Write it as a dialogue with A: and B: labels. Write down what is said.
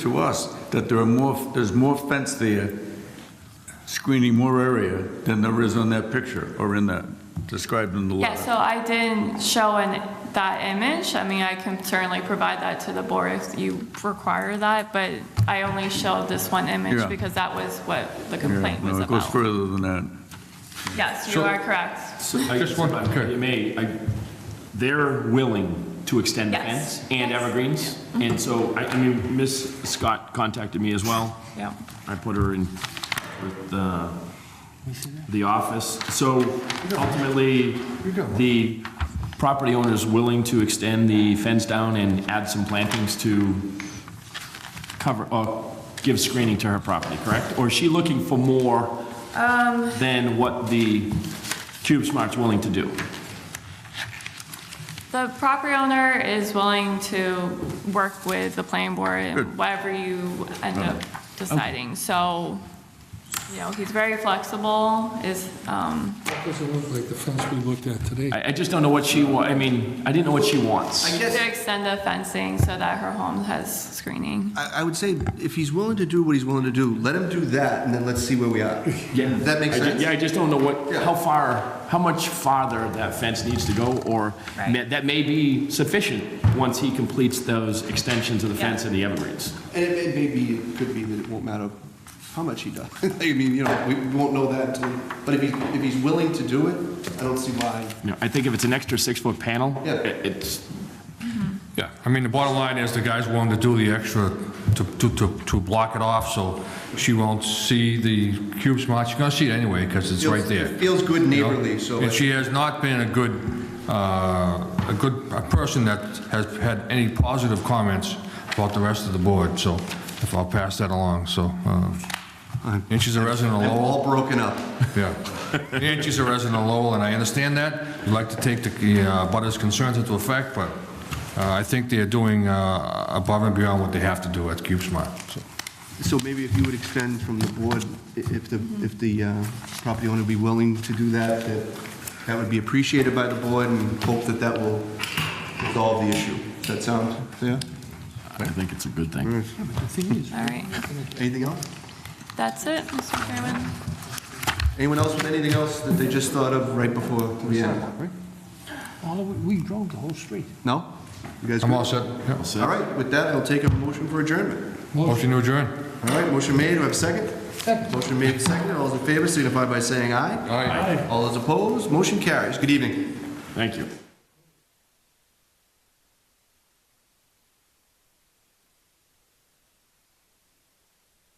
A: to us that there are more, there's more fence there screening more area than there is on that picture or in that, described in the
B: Yeah,
A: letter.
B: so I didn't show an, that image. I mean, I can certainly provide that to the board if you require that, but I only showed this one
A: Yeah.
B: image because that was what the complaint
A: Yeah,
B: was
A: No, it goes
B: about.
A: further than that.
B: Yes, you
C: So-
B: are correct.
C: I just want,
D: You may, I- they're willing to extend the
B: Yes.
D: fence and
B: Yes.
D: evergreens. And so, I, I mean, Miss Scott contacted me as well.
B: Yeah.
D: I put her in with the, the office. So ultimately, the property owner is willing to extend the fence down and add some plantings to cover, or give screening to her property, correct? Or is she looking for more than what the Cube Smart's willing to do?
B: The property owner is willing to work with the planning board and whatever you end up deciding. So, you know, he's very flexible, is, um,
E: That Doesn't look like the fence we looked at today.
D: I, I just don't know what she wa, I mean, I didn't know what she wants.
B: to extend the fencing so that her home has screening.
F: I, I would say, if he's willing to do what he's willing to do, let him do that, and then let's see where we are.
D: Yeah.
F: That makes
D: I ju-
F: sense?
D: Yeah, I just don't know what,
F: Yeah.
D: how far, how much farther that fence needs to go, or
B: Right.
D: ma- that may be sufficient once he completes those extensions of the fence and the evergreens.
F: And it may- maybe, it could be that it won't matter how much he does. I mean, you know, we won't know that until, but if he, if he's willing to do it, I don't see why.
D: You know, I think if it's an extra six-foot panel,
F: Yeah.
D: it- it's,
C: yeah, I mean, the bottom line is the guy's willing to do the extra to, to, to, to block it off, so she won't see the cube smart, she's gonna see it anyway, because it's right there.
F: It feels good
C: you know?
F: neighborly, so.
C: And she has not been a good, uh, a good a person that has had any positive comments about the rest of the board, so if I'll pass that along, so. uh, And she's a resident of
F: They're
C: Lowell.
F: all broken up.
C: Yeah. And she's a resident of Lowell, and I understand that. We'd like to take the uh, butters' concerns into effect, but uh, I think they're doing uh, above and beyond what they have to do at Cube Smart. so.
F: So maybe if you would extend from the board, i- if the, if the uh, property owner would be willing to do that, that that would be appreciated by the board and hope that that will resolve the issue. Does that sound fair?
D: I think it's a good thing.
B: All right,
F: Anything else?
B: that's it, Mr. Chairman.
F: Anyone else with anything else that they just thought of right before we end?
G: We drove the whole street.
F: No? You guys
C: I'm
F: good?
C: all set. Yeah.
F: All right, with that, I'll take a motion for adjournment.
C: Motion to adjourn.
F: All right, motion made, do I have a second? Second. Motion made, second, all those in favor signify by saying aye.
C: Aye.
F: All those opposed, motion carries. Good evening.
D: Thank you.